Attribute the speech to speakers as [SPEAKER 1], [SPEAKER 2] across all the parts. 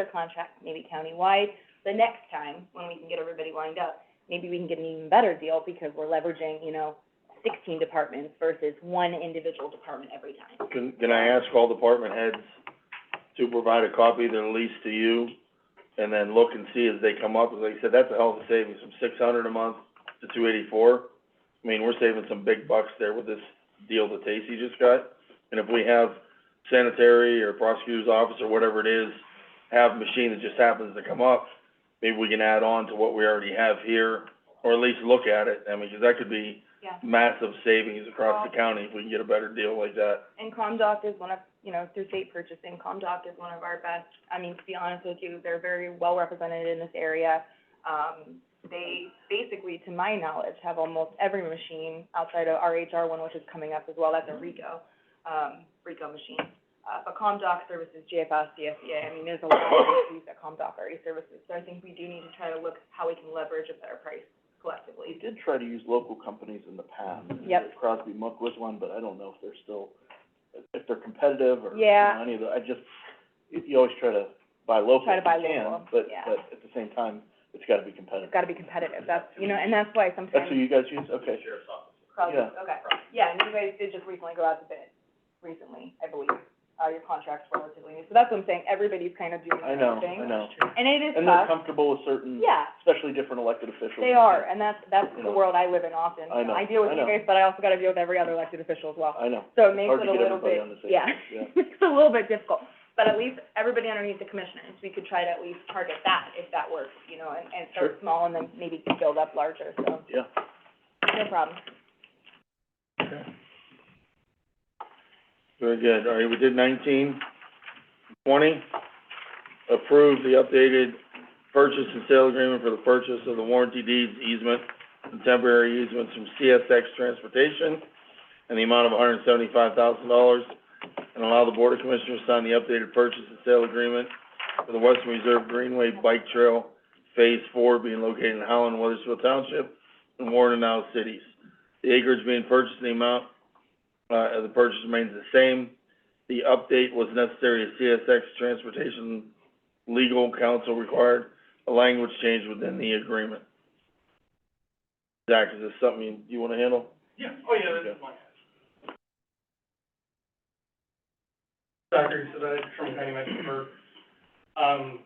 [SPEAKER 1] a contract, maybe countywide, the next time, when we can get everybody lined up, maybe we can get an even better deal because we're leveraging, you know, sixteen departments versus one individual department every time.
[SPEAKER 2] Can, can I ask all department heads to provide a copy of their lease to you, and then look and see as they come up, like I said, that's a hell of a savings, from six hundred a month to two eighty-four. I mean, we're saving some big bucks there with this deal that Tacy just got, and if we have sanitary or prosecutor's office or whatever it is, have a machine that just happens to come up, maybe we can add on to what we already have here, or at least look at it, I mean, 'cause that could be
[SPEAKER 1] Yeah.
[SPEAKER 2] massive savings across the county if we can get a better deal like that.
[SPEAKER 1] And Comdoc is one of, you know, through state purchasing, Comdoc is one of our best, I mean, to be honest with you, they're very well represented in this area. Um, they basically, to my knowledge, have almost every machine outside of RHR one, which is coming up as well, that's a RICO, um, RICO machine. Uh, but Comdoc services JFS, CSEA, I mean, there's a lot of issues that Comdoc already services, so I think we do need to try to look how we can leverage a better price
[SPEAKER 3] We
[SPEAKER 1] collectively.
[SPEAKER 3] did try to use local companies in the past.
[SPEAKER 1] Yep.
[SPEAKER 3] Crosby Muck was one, but I don't know if they're still, if they're competitive or, you
[SPEAKER 1] Yeah.
[SPEAKER 3] know, any of the, I just, you, you always try to buy local
[SPEAKER 1] Try to
[SPEAKER 3] if you
[SPEAKER 1] buy
[SPEAKER 3] can,
[SPEAKER 1] local,
[SPEAKER 3] but,
[SPEAKER 1] yeah.
[SPEAKER 3] but at the same time, it's gotta be competitive.
[SPEAKER 1] It's gotta be competitive, that's, you know, and that's why sometimes.
[SPEAKER 3] That's who you guys use? Okay.
[SPEAKER 1] Crowd,
[SPEAKER 3] Yeah.
[SPEAKER 1] okay. Yeah, and you guys did just recently go out to bid, recently, I believe. Uh, your contract's relatively new, so that's what I'm saying, everybody's kind of doing
[SPEAKER 3] I
[SPEAKER 1] their
[SPEAKER 3] know,
[SPEAKER 1] own thing.
[SPEAKER 3] I know.
[SPEAKER 1] And it is
[SPEAKER 3] And they're
[SPEAKER 1] tough,
[SPEAKER 3] comfortable with certain,
[SPEAKER 1] yeah,
[SPEAKER 3] especially different elected officials.
[SPEAKER 1] they are, and that's, that's
[SPEAKER 3] You
[SPEAKER 1] the
[SPEAKER 3] know.
[SPEAKER 1] world I live in often.
[SPEAKER 3] I know,
[SPEAKER 1] I deal with
[SPEAKER 3] I
[SPEAKER 1] you
[SPEAKER 3] know.
[SPEAKER 1] guys, but I also gotta deal with every other elected official as well.
[SPEAKER 3] I know.
[SPEAKER 1] So it makes
[SPEAKER 3] hard
[SPEAKER 1] it
[SPEAKER 3] to
[SPEAKER 1] a
[SPEAKER 3] get
[SPEAKER 1] little
[SPEAKER 3] everybody
[SPEAKER 1] bit,
[SPEAKER 3] on the same
[SPEAKER 1] yeah.
[SPEAKER 3] page, yeah.
[SPEAKER 1] It's a little bit difficult, but at least everybody underneath the commissioners, we could try to at least target that if that works, you know, and, and start
[SPEAKER 3] Sure.
[SPEAKER 1] small and then maybe build up larger, so,
[SPEAKER 3] Yeah.
[SPEAKER 1] no problem.
[SPEAKER 2] Very good, all right, we did nineteen. Twenty, approve the updated purchase and sale agreement for the purchase of the warranty deeds easement and temporary easements from CSX Transportation and the amount of hundred and seventy-five thousand dollars, and allow the Board of Commissioners to sign the updated purchase and sale agreement for the Western Reserve Greenway Bike Trail Phase Four being located in Howland, Weathersfield Township, and Warren and Isles Cities. The acreage being purchased in the amount uh, the purchase remains the same. The update was necessary as CSX Transportation legal counsel required a language change within the agreement. Zach, is this something you, you wanna handle?
[SPEAKER 4] Yeah, oh yeah, that's fine. Zachary Sadek from County Mecklenburg. Um,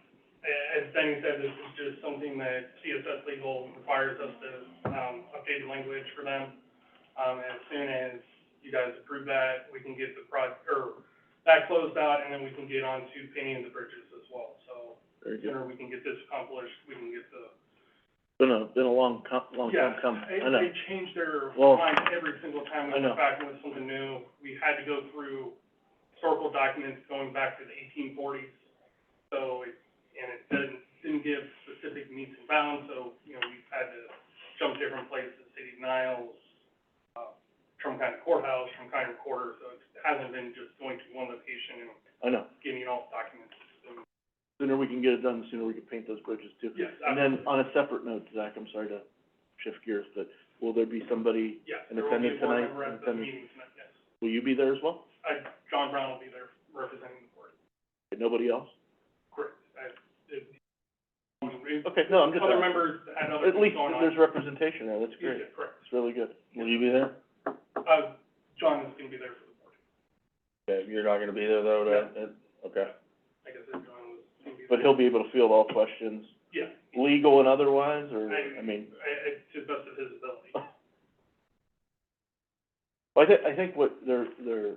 [SPEAKER 4] a- as Danny said, this is just something that CSS legal requires us to, um, update the language for them. Um, as soon as you guys approve that, we can get the proj, or that closed out, and then we can get on to paying the bridges as well. So,
[SPEAKER 2] Very good.
[SPEAKER 4] sooner we can get this accomplished, we can get the
[SPEAKER 3] Been a, been a long com- long time
[SPEAKER 4] yeah,
[SPEAKER 3] coming,
[SPEAKER 4] they,
[SPEAKER 3] I know.
[SPEAKER 4] they change their
[SPEAKER 3] Well,
[SPEAKER 4] mind every single time we
[SPEAKER 3] I
[SPEAKER 4] went
[SPEAKER 3] know.
[SPEAKER 4] back with something new. We had to go through historical documents going back to the eighteen forties. So, it- and it didn't, didn't give specific meets and bounds, so, you know, we've had to jump different places, City of Niles, uh, Trumbull County Courthouse, Trumbull County Recorder, so it hasn't been just going to one location and
[SPEAKER 3] I know.
[SPEAKER 4] getting all the documents. So,
[SPEAKER 3] sooner we can get it done, the sooner we can paint those bridges too.
[SPEAKER 4] Yes,
[SPEAKER 3] And then, on a separate note, Zach, I'm sorry to shift gears, but will there be somebody,
[SPEAKER 4] Yes,
[SPEAKER 3] in
[SPEAKER 4] there will be a
[SPEAKER 3] attendance tonight,
[SPEAKER 4] board member
[SPEAKER 3] in
[SPEAKER 4] at the
[SPEAKER 3] attendance?
[SPEAKER 4] meeting tonight, yes.
[SPEAKER 3] will you be there as well?
[SPEAKER 4] Uh, John Brown will be there representing the board.
[SPEAKER 3] Nobody else?
[SPEAKER 4] Correct. I- it- it-
[SPEAKER 3] Okay, no, I'm just
[SPEAKER 4] Other
[SPEAKER 3] asking.
[SPEAKER 4] members had other
[SPEAKER 3] At
[SPEAKER 4] things
[SPEAKER 3] least
[SPEAKER 4] going on.
[SPEAKER 3] there's representation there, that's great,
[SPEAKER 4] Yeah, Correct.
[SPEAKER 3] it's really good.
[SPEAKER 2] Will you be there?
[SPEAKER 4] Uh, John is gonna be there for the board.
[SPEAKER 2] Yeah, you're not gonna be there though, that, that- okay.
[SPEAKER 4] I guess that John was gonna be there.
[SPEAKER 3] But he'll be able to field all questions,
[SPEAKER 4] Yeah.
[SPEAKER 3] legal and otherwise, or,
[SPEAKER 4] I-
[SPEAKER 3] I mean,
[SPEAKER 4] I, I, to the best of his ability.
[SPEAKER 3] I thi- I think what they're, they're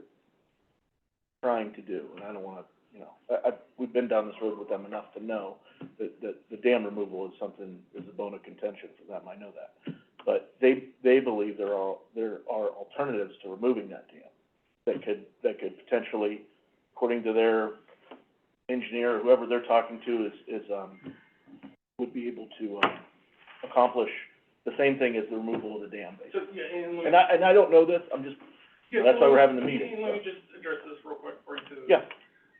[SPEAKER 3] trying to do, and I don't wanna, you know, I, I, we've been down this road with them enough to know that, that the dam removal is something, is a bone of contention for them, I know that. But they, they believe there are, there are alternatives to removing that dam that could, that could potentially, according to their engineer, whoever they're talking to is, is, um, would be able to, um, accomplish the same thing as the removal of the dam, basically.
[SPEAKER 4] So, yeah, and let me.
[SPEAKER 3] And I, and I don't know this, I'm just,
[SPEAKER 4] yeah,
[SPEAKER 3] that's why we're
[SPEAKER 4] let
[SPEAKER 3] having the
[SPEAKER 4] me-
[SPEAKER 3] meeting,
[SPEAKER 4] Let me
[SPEAKER 3] so.
[SPEAKER 4] just address this real quick before you do.
[SPEAKER 3] yeah,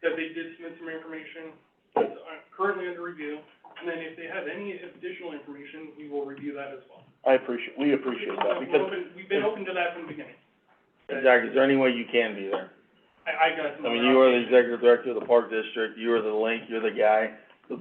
[SPEAKER 4] That they did submit some information, it's uh, currently under review, and then if they have any additional information, we will review that as well.
[SPEAKER 3] I appreciate, we appreciate that,
[SPEAKER 4] We're
[SPEAKER 3] because,
[SPEAKER 4] open- We've been open to that from the beginning.
[SPEAKER 2] Zach, is there any way you can be there?
[SPEAKER 4] I, I got some.
[SPEAKER 2] I mean,
[SPEAKER 4] other
[SPEAKER 2] you are the
[SPEAKER 4] obligations.
[SPEAKER 2] executive director of the park district, you are the link, you're the guy.